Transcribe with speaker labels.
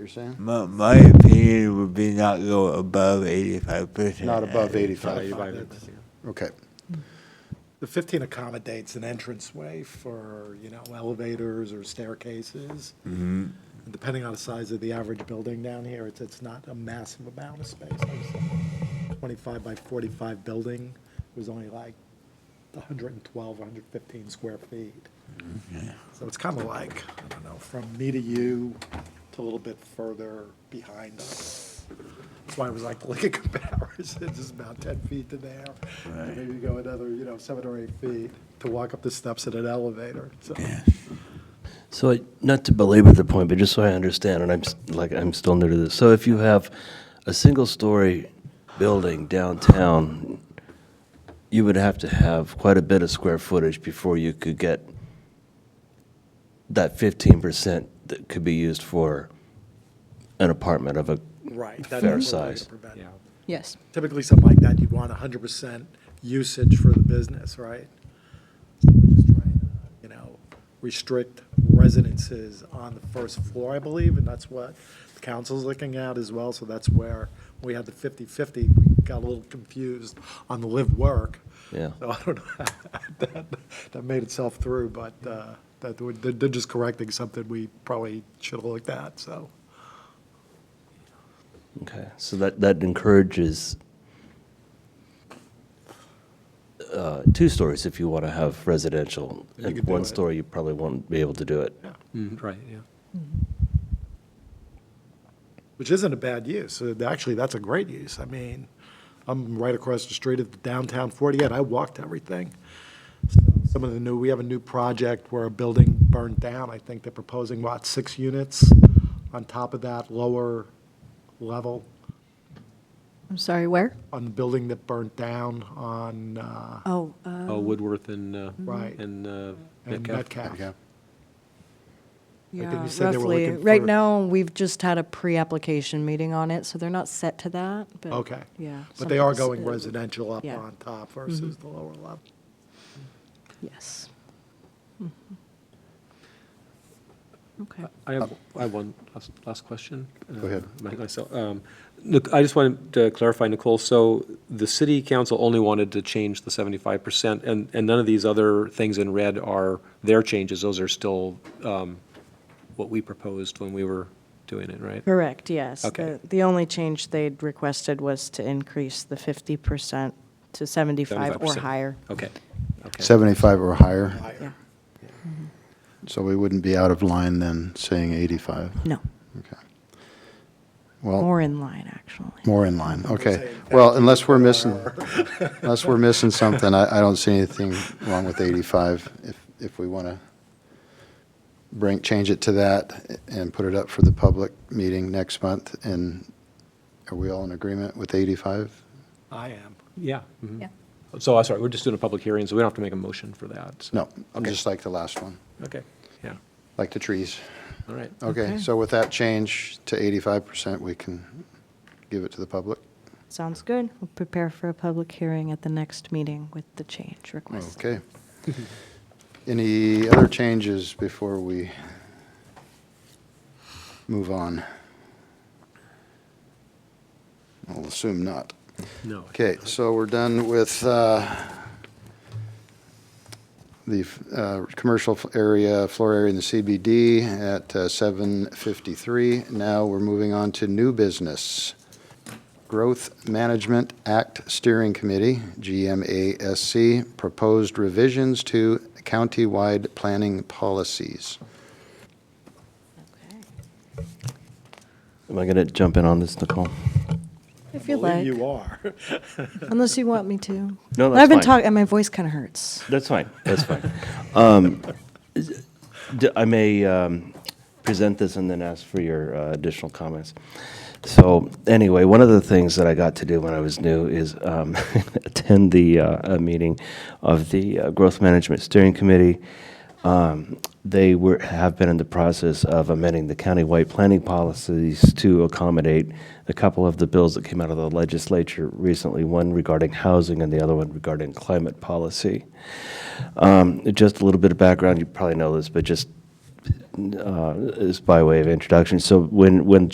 Speaker 1: You're saying?
Speaker 2: My, my opinion would be not go above eighty-five percent.
Speaker 1: Not above
Speaker 3: Five,
Speaker 1: 85.
Speaker 3: that's-
Speaker 1: Okay.
Speaker 3: The 15 accommodates an entranceway for, you know, elevators or staircases. And Depending on the size of the average building down here, it's, it's not a massive amount of space. There's a 25 by 45 building was only like 112, 115 square feet. So it's kind of like, I don't know, from me to you to a little bit further behind us. That's why I was like, look at comparisons, it's about 10 feet to there. and
Speaker 2: Right.
Speaker 3: Maybe go another, you know, seven or eight feet to walk up the steps at an elevator. So
Speaker 4: So, I- not to belabor the point, but just so I understand, and I'm, s- like, I'm still new to this. So if you have a single-story building downtown, you would have to have quite a bit of square footage before you could get that fifteen percent that could be used for an apartment of a
Speaker 3: Right.
Speaker 4: that is Fair what we're size. gonna
Speaker 5: Yes.
Speaker 3: Typically, something like that, you'd want 100% usage for the business, right? So We're just trying to, you know, restrict residences on the first floor, I believe, and that's what the council's looking at as well. So that's where we had the 50/50, we got a little confused on the live-work.
Speaker 4: Yeah.
Speaker 3: So I don't know, how that, that made itself through, but uh, that, would- they're just correcting something we probably should have looked at, so.
Speaker 4: Okay, so that, that encourages uh, two stories if you want to have residential.
Speaker 3: You
Speaker 4: And
Speaker 3: could do
Speaker 4: one
Speaker 3: it.
Speaker 4: story, you probably won't be able to do it.
Speaker 6: Mm, Right, yeah.
Speaker 3: Mm-hmm. which isn't a bad use. Uh, Actually, that's a great use. I mean, I'm right across the street at the downtown 48. I walked everything. So, Some of the new, we have a new project where a building burned down. I think they're proposing, what, six units on top of that lower level
Speaker 5: I'm sorry, where?
Speaker 3: on the building that burned down on, uh,
Speaker 5: Oh, uh,
Speaker 6: Oh, Woodworth and, uh,
Speaker 3: Right.
Speaker 6: and uh,
Speaker 3: and
Speaker 6: Metcalf.
Speaker 3: Metcalf.
Speaker 1: Okay.
Speaker 3: I think
Speaker 5: yeah,
Speaker 3: you said they were
Speaker 5: roughly.
Speaker 3: looking
Speaker 5: Right
Speaker 3: for-
Speaker 5: now, we've just had a pre-application meeting on it, so they're not set to that, but.
Speaker 3: Okay.
Speaker 5: Yeah.
Speaker 3: But they are
Speaker 5: something's-
Speaker 3: going
Speaker 5: uh,
Speaker 3: residential up
Speaker 5: yeah.
Speaker 3: on top versus the lower level.
Speaker 5: Yes. Mhm.
Speaker 7: Mm-hmm.
Speaker 5: Okay.
Speaker 6: I have, I have one last- last question.
Speaker 1: Go ahead.
Speaker 6: uh, my- Myself, Um, look, I just wanted to clarify, Nicole, so the city council only wanted to change the seventy-five percent, and, and none of these other things in red are their changes, those are still um, what we proposed when we were doing it, right?
Speaker 7: Correct, yes.
Speaker 6: Okay.
Speaker 7: The- The only change they'd requested was to increase the 50% to 75 or
Speaker 6: 75%.
Speaker 7: higher.
Speaker 6: Okay, okay.
Speaker 1: 75 or higher,
Speaker 3: Higher.
Speaker 1: so we wouldn't be out of line then saying 85.
Speaker 7: No,
Speaker 1: Okay. Well,
Speaker 7: more in line, actually.
Speaker 1: more in line, okay.
Speaker 3: saying
Speaker 1: Well, unless we're missing, unless we're missing something, I, I don't see anything wrong with 85. If, if we want to bring, change it to that and put it up for the public meeting next month, and are we all in agreement with 85?
Speaker 3: I am.
Speaker 6: Yeah. mhm. So, I'm sorry, we're just doing a public hearing, so we don't have to make a motion for that. so-
Speaker 1: No,
Speaker 6: Okay.
Speaker 1: just like the last one,
Speaker 6: Okay, yeah,
Speaker 1: like the trees.
Speaker 6: all right.
Speaker 1: Okay, so with that change to 85%, we can give it to the public?
Speaker 7: Sounds good. We'll prepare for a public hearing at the next meeting with the change request.
Speaker 1: Okay. Any other changes before we move on? I'll assume not.
Speaker 6: No.
Speaker 1: Okay, so we're done with uh, the uh, commercial area, floor area in the CBD at uh, 7:53. Now we're moving on to new business. Growth Management Act Steering Committee, GMASC, proposed revisions to countywide planning policies.
Speaker 4: Am I going to jump in on this, Nicole?
Speaker 7: If you
Speaker 3: Believe
Speaker 7: like,
Speaker 3: you are.
Speaker 7: unless you want me to.
Speaker 4: No, that's
Speaker 7: I've been
Speaker 4: fine.
Speaker 7: talking, and my voice kind of hurts.
Speaker 4: That's fine, that's fine. Um, d- I may um, present this and then ask for your uh, additional comments. So anyway, one of the things that I got to do when I was new is um, attend the uh, a meeting of the uh, Growth Management Steering Committee. Um, They were, have been in the process of amending the countywide planning policies to accommodate a couple of the bills that came out of the legislature recently, one regarding housing and the other one regarding climate policy. Um, Just a little bit of background, you probably know this, but just uh, is by way of introduction. So when, when